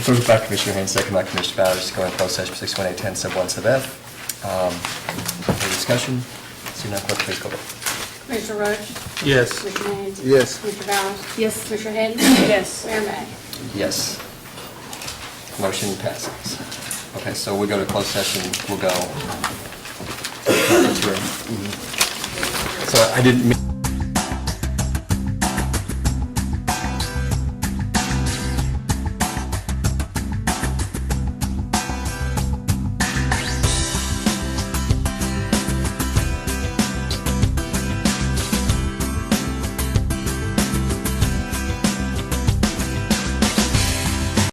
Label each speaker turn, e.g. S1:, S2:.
S1: Moved by Commissioner Haynes, second by Commissioner Bowers, to go in closed session six one eight ten sub one sub F. Um, Any discussion? Seeing none, clerk, please call the roll.
S2: Commissioner Roach?
S3: Yes.
S2: Commissioner Haynes?
S4: Yes.
S2: Commissioner Bowers?
S5: Yes.
S2: Commissioner Hayden? Yes. Mayor May?
S1: Yes. Motion passes. Okay, so we go to closed session, we'll go. to the conference room. Mm-hmm. So I didn't. mean-